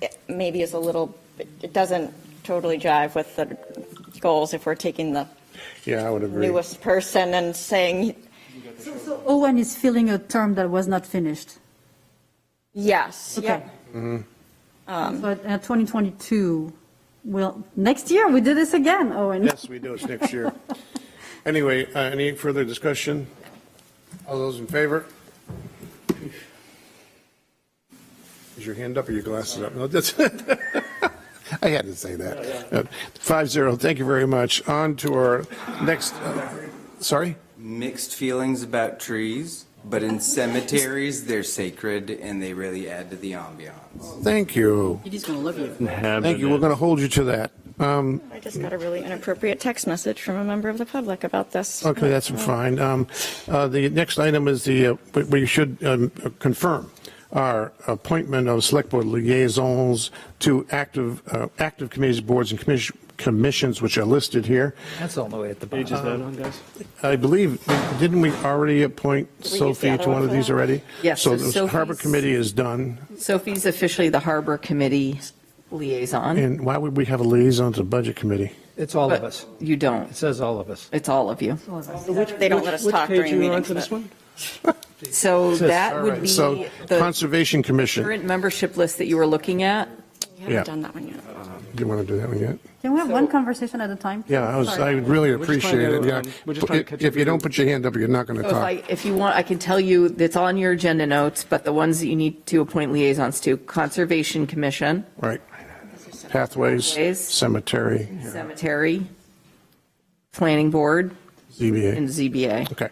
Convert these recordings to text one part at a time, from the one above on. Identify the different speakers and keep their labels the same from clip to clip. Speaker 1: it maybe is a little, it doesn't totally jive with the goals if we're taking the
Speaker 2: Yeah, I would agree.
Speaker 1: newest person and saying,
Speaker 3: So- So Owen is filling a term that was not finished.
Speaker 1: yes,
Speaker 3: Okay.
Speaker 1: yeah.
Speaker 2: Mm-hmm.
Speaker 3: But uh, 2022, well, next year, we do this again, Owen.
Speaker 2: Yes, we do, it's next year. Anyway, uh, any further discussion? All those in favor? Is your hand up or your glasses up? No, that's, I had to say that. Five zero, thank you very much. On to our next, uh, sorry?
Speaker 4: mixed feelings about trees, but in cemeteries, they're sacred and they really add to the ambiance.
Speaker 2: Thank you.
Speaker 5: He's going to love you.
Speaker 2: Thank you, we're going to hold you to that. Um,
Speaker 1: I just got a really inappropriate text message from a member of the public about this.
Speaker 2: Okay, that's fine. Um, uh, The next item is the, uh, we- we should um, confirm our appointment of select board liaisons to active, uh, active committees, boards, and commis- commissions, which are listed here.
Speaker 6: That's all the way at the bottom.
Speaker 7: Pages
Speaker 2: Uh-huh.
Speaker 7: that on, guys?
Speaker 2: I believe, didn't we already appoint
Speaker 1: the
Speaker 2: Sophie
Speaker 1: other
Speaker 2: to
Speaker 1: one
Speaker 2: one of
Speaker 1: for
Speaker 2: these
Speaker 1: that?
Speaker 2: already?
Speaker 5: Yes,
Speaker 2: So
Speaker 5: so
Speaker 2: the harbor
Speaker 5: Sophie's-
Speaker 2: committee is done,
Speaker 5: Sophie's officially the Harbor Committee liaison.
Speaker 2: and why would we have a liaison to the budget committee?
Speaker 6: It's all of
Speaker 5: but
Speaker 6: us.
Speaker 5: You
Speaker 6: It
Speaker 5: don't.
Speaker 6: says all of us.
Speaker 5: It's all of you.
Speaker 1: They don't let us talk during meetings. but-
Speaker 5: So
Speaker 6: says-
Speaker 5: that would be
Speaker 2: So
Speaker 5: the
Speaker 2: Conservation Commission,
Speaker 5: current membership list that you were looking at.
Speaker 1: We
Speaker 2: Yeah.
Speaker 1: haven't done that one yet.
Speaker 2: do you want to do that one yet?
Speaker 3: Can we have one conversation at a time?
Speaker 2: Yeah, I was, I
Speaker 3: Sorry.
Speaker 2: would really
Speaker 7: We're just trying
Speaker 2: appreciate it.
Speaker 7: to,
Speaker 2: yeah.
Speaker 7: um, we're just trying to catch
Speaker 2: If you
Speaker 7: everybody.
Speaker 2: don't put your hand up, you're not going to
Speaker 5: So if
Speaker 2: talk.
Speaker 5: I, if you want, I can tell you that's on your agenda notes, but the ones that you need to appoint liaisons to, Conservation Commission,
Speaker 2: Right. Pathways,
Speaker 5: Pathways.
Speaker 2: cemetery,
Speaker 5: Cemetery, Planning Board, and
Speaker 2: ZBA.
Speaker 5: ZBA.
Speaker 2: Okay.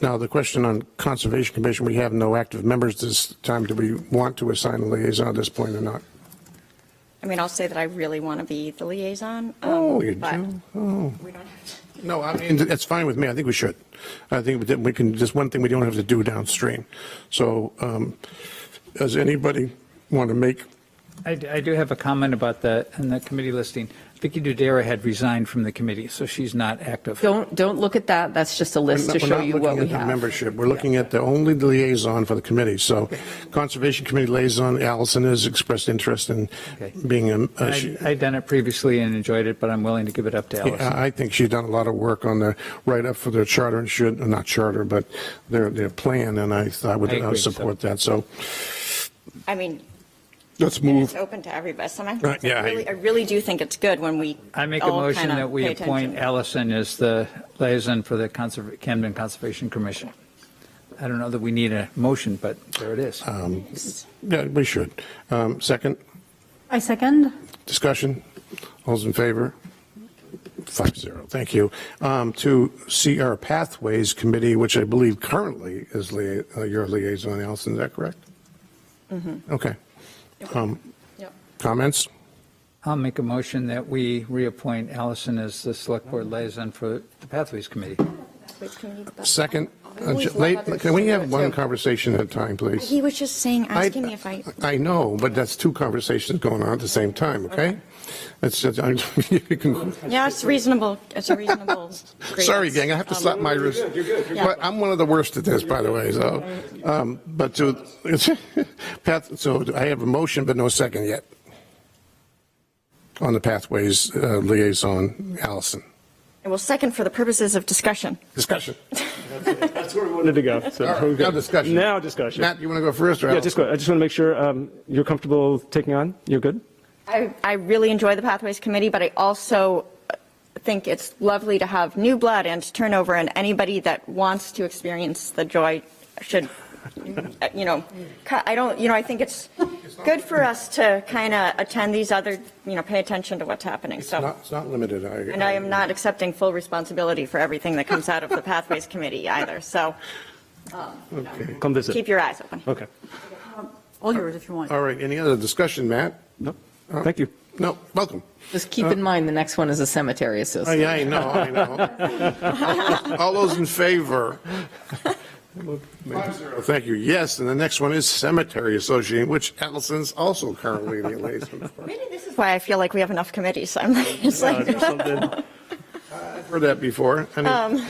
Speaker 2: Now, the question on Conservation Commission, we have no active members this time. Do we want to assign a liaison at this point or not?
Speaker 1: I mean, I'll say that I really want to be the liaison. um,
Speaker 2: Oh, you
Speaker 1: but
Speaker 2: do? Oh.
Speaker 1: We don't have to.
Speaker 2: No, I mean, that's fine with me. I think we should. I think that we can, just one thing we don't have to do downstream. So um, does anybody want to make,
Speaker 6: I, d- I do have a comment about that and the committee listing. Vicky Dudera had resigned from the committee, so she's not active.
Speaker 5: Don't, don't look at that. That's just a list to
Speaker 2: We're not-
Speaker 5: show you what
Speaker 2: We're
Speaker 5: we
Speaker 2: not looking at the
Speaker 5: have.
Speaker 2: membership, we're looking at the only the liaison for the committee. So Conservation Committee liaison, Allison has expressed interest in
Speaker 6: Okay.
Speaker 2: being, a- a- she-
Speaker 6: I- I'd done it previously and enjoyed it, but I'm willing to give it up to Allison.
Speaker 2: I I think she's done a lot of work on the write-up for their charter and should, not charter, but their, their plan, and I I would
Speaker 6: I
Speaker 2: I would
Speaker 6: agree, so-
Speaker 2: support that. So
Speaker 1: I mean,
Speaker 2: let's
Speaker 1: it's
Speaker 2: move.
Speaker 1: open to everybody. Sometimes
Speaker 2: Right, yeah,
Speaker 1: I
Speaker 2: I-
Speaker 1: really, I really do think it's good when we
Speaker 6: I make a
Speaker 1: all
Speaker 6: motion
Speaker 1: kinda
Speaker 6: that we
Speaker 1: pay
Speaker 6: appoint
Speaker 1: attention.
Speaker 6: Allison as the liaison for the Conserv- Camden Conservation Commission. I don't know that we need a motion, but there it is.
Speaker 2: Um, Yeah, we should. Um, Second,
Speaker 3: I second.
Speaker 2: discussion, all's in favor? Five zero, thank you. Um, To CR Pathways Committee, which I believe currently is lia- uh, your liaison, Allison, is that correct? Okay. Um,
Speaker 1: Mm-hmm. Yep.
Speaker 2: Comments?
Speaker 6: I'll make a motion that we reappoint Allison as the Select Board liaison for the Pathways Committee.
Speaker 1: Wait, can we do that?
Speaker 2: Second, uh,
Speaker 1: always
Speaker 2: j-
Speaker 1: love
Speaker 2: late-
Speaker 1: others
Speaker 2: can we
Speaker 1: to do
Speaker 2: have
Speaker 1: it,
Speaker 2: one
Speaker 1: too.
Speaker 2: conversation at a time, please?
Speaker 1: He was just saying, asking me if I,
Speaker 2: I know, but that's two conversations going on at the same time, okay? That's, just- I'm- you can-
Speaker 1: yeah, it's reasonable, it's a reasonable.
Speaker 2: sorry,
Speaker 1: grievance.
Speaker 2: gang, I have to
Speaker 1: Um,
Speaker 2: slap my wrist. But I'm one of the worst at this, by the way, so, um, but to, Pat, so I have a motion, but no second yet on the Pathways uh, Liaison, Allison.
Speaker 1: Well, second, for the purposes of discussion.
Speaker 2: Discussion.
Speaker 7: That's where we wanted to go. so-
Speaker 2: All right, Now discussion.
Speaker 7: Now discussion.
Speaker 2: Matt, you want to go first or
Speaker 7: Yeah,
Speaker 2: Allison?
Speaker 7: just go, I just want to make sure um, you're comfortable taking on, you're good?
Speaker 1: I, I really enjoy the Pathways Committee, but I also think it's lovely to have new blood and turnover, and anybody that wants to experience the joy should, you know, cu- I don't, you know, I think it's good for us to kind of attend these other, you know, pay attention to what's happening,
Speaker 2: It's not,
Speaker 1: so.
Speaker 2: it's not limited. I-
Speaker 1: And I am not accepting full responsibility for everything that comes out of the Pathways Committee either, so
Speaker 7: Come visit.
Speaker 1: keep your eyes open.
Speaker 7: Okay.
Speaker 3: All yours if you want.
Speaker 2: All right, any other discussion, Matt?
Speaker 7: No, thank you.
Speaker 2: No, welcome.
Speaker 5: Just
Speaker 2: Uh,
Speaker 5: keep in mind, the next one is a cemetery
Speaker 2: Oh,
Speaker 5: association.
Speaker 2: yeah, I know, I know. All those in favor? Five zero. Thank you. Yes, and the next one is Cemetery Association, which Allison's also currently the liaison for.
Speaker 1: Maybe this is why I feel like we have enough committees, I'm like, it's
Speaker 7: Uh,
Speaker 1: like,
Speaker 7: there's something-
Speaker 2: I've heard that before. Any-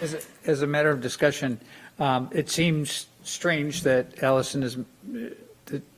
Speaker 6: As a- As a matter of discussion, um, it seems strange that Allison is, uh, that